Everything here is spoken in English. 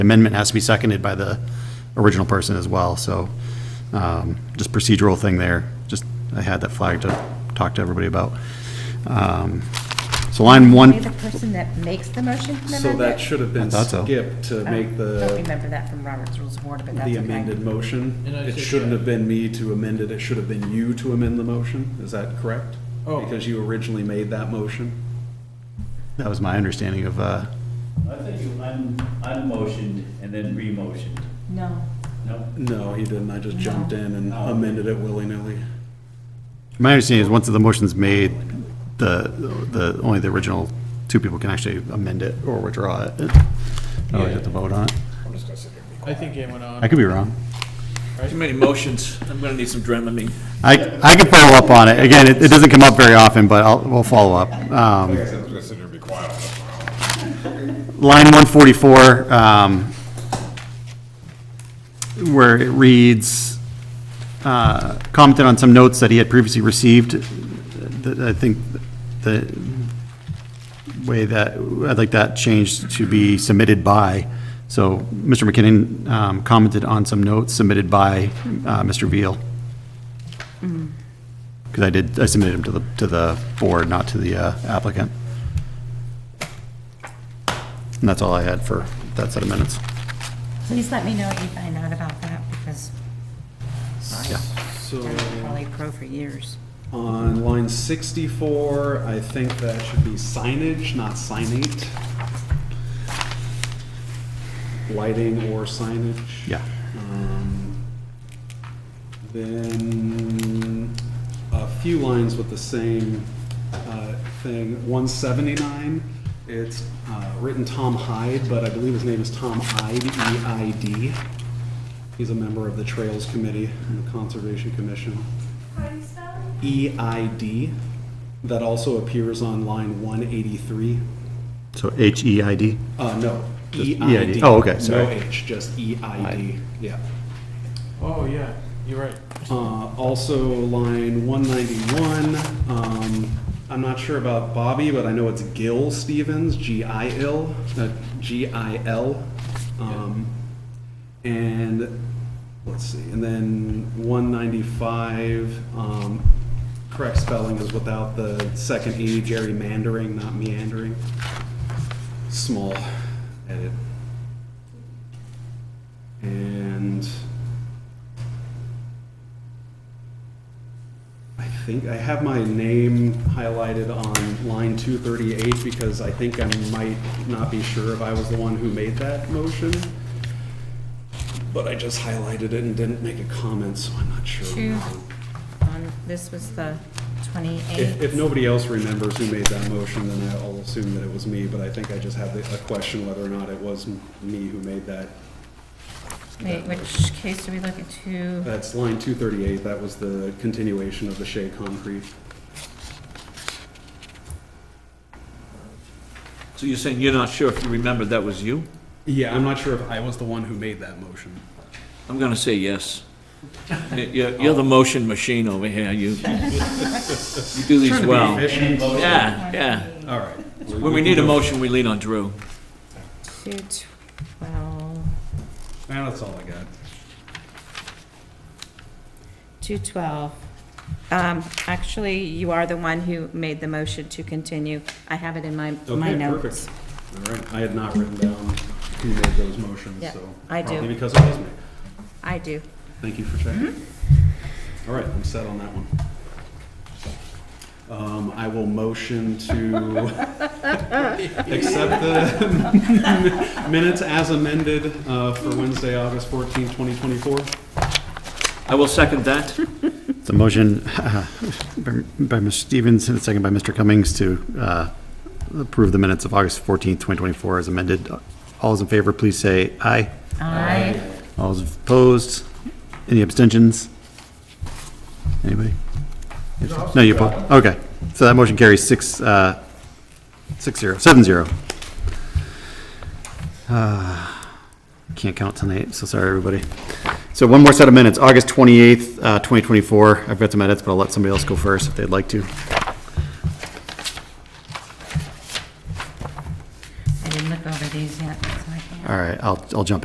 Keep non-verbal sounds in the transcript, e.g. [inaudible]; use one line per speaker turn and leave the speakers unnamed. amendment has to be seconded by the original person as well, so um, just procedural thing there. Just, I had that flag to talk to everybody about. Um, So line
Are you
one,
the person that makes the motion to amend
So that
it? Oh,
should have
I
been
thought so.
skipped to make
Uh, Don't
the,
remember that from Robert's Rules of Order, but that's
the amended
okay.
motion.
And I
It
said,
shouldn't
yeah.
have been me to amend it, it should have been you to amend the motion, is that correct?
Oh.
Because you originally made that motion.
that was my understanding of, uh,
I think you un, unmotioned and then remotioned,
No,
no?
No, he didn't, I just jumped in and amended it willy-nilly.
my understanding is once the motion's made, the, the, only the original two people can actually amend it or withdraw it. I don't have to vote on it.
I think it went
I
on.
could be wrong.
Too many motions. I'm gonna need some Dramamine.
I, I can follow up on it. Again, it, it doesn't come up very often, but I'll, we'll follow up. Um,
I said I was gonna sit here and be quiet.
line 144, um, where it reads, uh, commented on some notes that he had previously received, uh, that I think the way that, I'd like that changed to be submitted by. So Mr. McKinnon um, commented on some notes submitted by uh, Mr. Veal. Because I did, I submitted them to the, to the board, not to the uh, applicant. And that's all I had for that set of minutes.
please let me know if you find out about that, because I
So
was probably pro for years.
on line 64, I think that should be signage, not signate. Lighting or signage.
Yeah.
Um, Then, a few lines with the same uh, thing, 179, it's uh, written Tom Hyde, but I believe his name is Tom Ide, E-I-D. He's a member of the Trails Committee and the Conservation Commission. E-I-D, that also appears on line 183.
So E H-E-I-D?
Uh, no,
Just
E-I-D.
EID. Oh, okay, sorry.
No H, just E-I-D, yeah.
Oh, yeah, you're right.
Uh, Also, line 191, um, I'm not sure about Bobby, but I know it's Gil Stevens, G-I-L, uh, G-I-L. Um, And, let's see, and then 195, um, correct spelling is without the second E, gerrymandering, not meandering. Small edit. And I think I have my name highlighted on line 238 because I think I might not be sure if I was the one who made that motion. But I just highlighted it and didn't make a comment, so I'm not sure.
Two, on, this was the
If, if
28th.
nobody else remembers who made that motion, then I'll assume that it was me, but I think I just have the- a question whether or not it was me who made that.
Wait, which case do we look at? Two,
That's line 238, that was the continuation of the Shea Concrete.
So you're saying you're not sure if you remember that was you?
Yeah, I'm not sure if I was the one who made that motion.
I'm gonna say yes. You- You're, you're the motion machine over here. You, you do these well. Yeah, yeah.
All right.
When we need a motion, we lean on Drew.
two, 12,
Now that's all I got.
two, 12. Um, Actually, you are the one who made the motion to continue. I have it in my, my
Okay,
notes.
perfect. All right, I had not written down who made those motions,
Yeah,
so.
I do.
Probably because it was me.
I do.
Thank you for checking. All right, I'm set on that one. Um, I will motion to accept the [laughs] minutes as amended, uh, for Wednesday, August fourteenth, twenty twenty-four.
I will second that.
It's a motion uh, by Mr. Stevens and a second by Mr. Cummings to uh, approve the minutes of August 14th, 2024 as amended. All those in favor, please say aye.
Aye.
All those opposed? Any abstentions? Anybody? No, you, oppo- okay. So that motion carries six, uh, six zero, seven zero. Ah, Can't count tonight, so sorry, everybody. So one more set of minutes, August 28th, uh, 2024. I've got some edits, but I'll let somebody else go first if they'd like to.
I didn't look over these yet, so I can't.
All All right, I'll, I'll jump